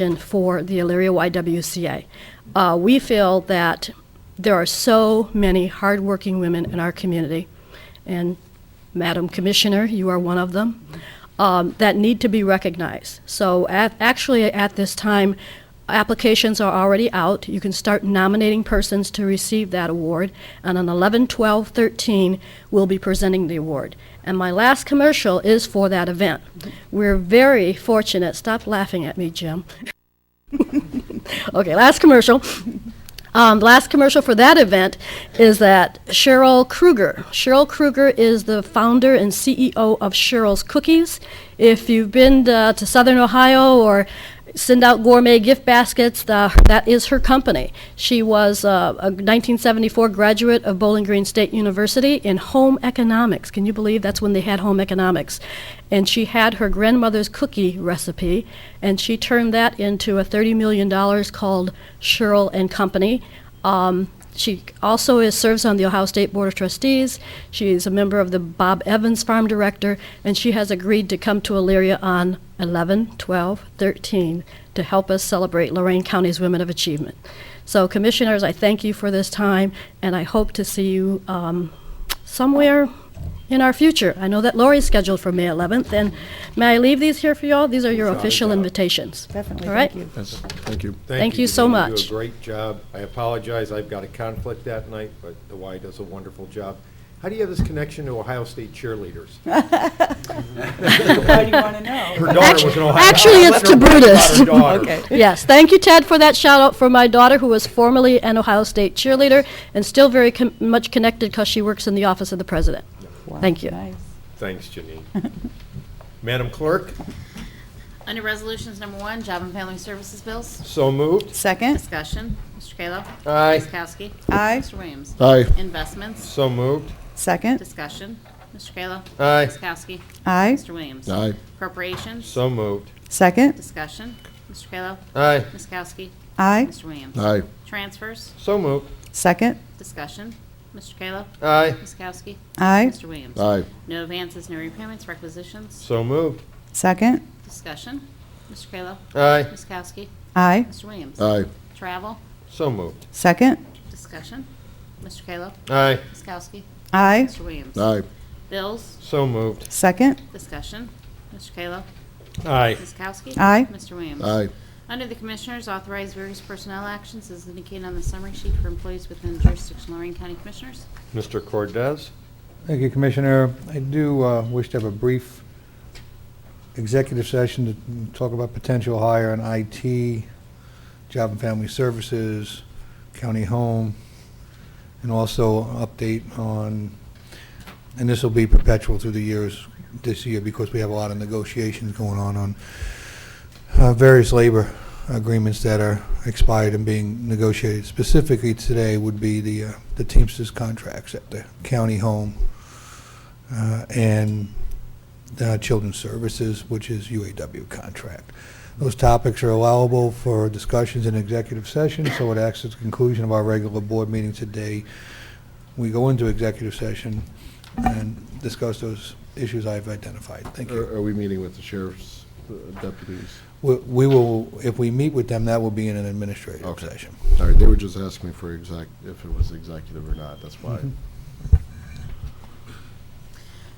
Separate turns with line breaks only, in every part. action for the Elyria YWCA. Uh, we feel that there are so many hardworking women in our community, and Madam Commissioner, you are one of them, um, that need to be recognized. So at, actually, at this time, applications are already out. You can start nominating persons to receive that award, and on 11, 12, 13, we'll be presenting the award. And my last commercial is for that event. We're very fortunate, stop laughing at me, Jim. Okay, last commercial. Um, last commercial for that event is that Cheryl Kruger. Cheryl Kruger is the founder and CEO of Cheryl's Cookies. If you've been uh, to Southern Ohio or send out gourmet gift baskets, the, that is her company. She was uh, a 1974 graduate of Bowling Green State University in home economics. Can you believe that's when they had home economics? And she had her grandmother's cookie recipe, and she turned that into a $30 million called Sherrill and Company. Um, she also is, serves on the Ohio State Board of Trustees. She is a member of the Bob Evans Farm Director, and she has agreed to come to Elyria on 11, 12, 13 to help us celebrate Lorraine County's Women of Achievement. So, commissioners, I thank you for this time, and I hope to see you um, somewhere in our future. I know that Lori's scheduled for May 11th, and may I leave these here for y'all? These are your official invitations.
Definitely,
All right?
thank you.
That's- Thank you.
Thank you so
Janine.
much.
You do a great job. I apologize, I've got a conflict that night, but the Y does a wonderful job. How do you have this connection to Ohio State cheerleaders?
Why do you want to know?
Her daughter was an Ohio.
actually, it's to Brutus.
Okay.
Yes, thank you, Ted, for that shout out for my daughter, who was formerly an Ohio State cheerleader and still very con- much connected because she works in the office of the president. Thank you.
Nice.
Thanks, Janine. Madam Clerk,
Under Resolutions Number One, Job and Family Services Bills,
so moved.
Second,
discussion. Mr. Kayla.
Aye.
Ms. Kowski.
Aye.
Mr. Williams.
Aye.
Investments,
So moved.
second,
discussion. Mr. Kayla.
Aye.
Ms. Kowski.
aye,
Mr. Williams.
Aye.
Corporations,
So moved.
second,
discussion. Mr. Kayla.
Aye.
Ms. Kowski.
aye,
Mr. Williams.
Aye.
Transfers,
So moved.
second,
discussion. Mr. Kayla.
Aye.
Ms. Kowski.
aye,
Mr. Williams.
Aye.
No advances, no repayments, requisitions,
So moved.
second,
discussion. Mr. Kayla.
Aye.
Ms. Kowski.
aye,
Mr. Williams.
Aye.
Travel,
So moved.
second,
discussion. Mr. Kayla.
Aye.
Ms. Kowski.
aye,
Mr. Williams.
Aye.
Bills,
So moved.
second,
discussion. Mr. Kayla.
Aye.
Ms. Kowski.
Aye.
Mr. Williams.
Aye.
Under the Commissioners, authorize various personnel actions as indicated on the summary sheet for employees within the jurisdiction of Lorraine County Commissioners.
Mr. Cordez?
Thank you, Commissioner. I do uh, wish to have a brief executive session to talk about potential hire in IT, Job and Family Services, County Home, and also update on, and this will be perpetual through the years this year because we have a lot of negotiations going on on uh, various labor agreements that are expired and being negotiated. Specifically today would be the uh, the Teamsters contracts at the County Home uh, and uh, Children's Services, which is UAW contract. Those topics are allowable for discussions in executive session, so it acts as the conclusion of our regular board meeting today. We go into executive session and discuss those issues I've identified. Thank you.
Are are we meeting with the sheriff's uh, deputies?
We we will, if we meet with them, that will be in an administrative
Okay.
session.
All right, they were just asking me for exec, if it was executive or not, that's why.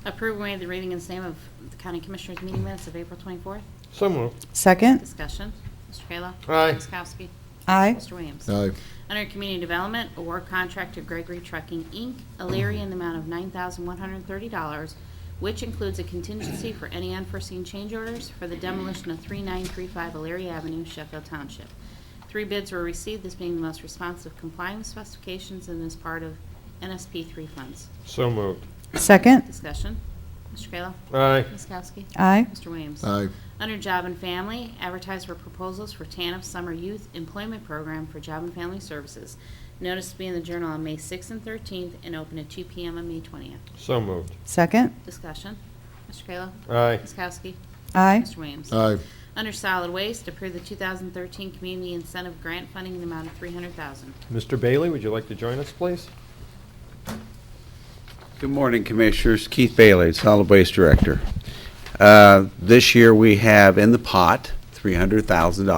Approve and waive the reading and same of the County Commissioners meeting minutes of April 24th.
So moved.
second,
Discussion. Mr. Kayla.
Aye.
Ms. Kowski.
aye,
Mr. Williams.
Aye.
Under Community Development, award contract to Gregory Trucking, Inc., Elyria, in the amount of $9,130, which includes a contingency for any unforeseen change orders for the demolition of 3935 Elyria Avenue, Sheffield Township. Three bids were received, this being the most responsive complying with specifications in this part of NSP 3 funds.
So moved.
second,
Discussion. Mr. Kayla.
Aye.
Ms. Kowski.
aye,
Mr. Williams.
Aye.
Under Job and Family, advertise for proposals for TANF Summer Youth Employment Program for Job and Family Services. Notice to be in the Journal on May 6th and 13th and open at 2 PM on May 20th.
So moved.
second,
Discussion. Mr. Kayla.
Aye.
Ms. Kowski.
aye,
Mr. Williams.
Aye.
Under Solid Waste, approve the 2013 Community Incentive Grant Funding in the amount of 300000
Mr. Bailey, would you like to join us, please?
Good morning, Commissioners. Keith Bailey, Solid Waste Director. Uh, This year, we have in the pot $300,000.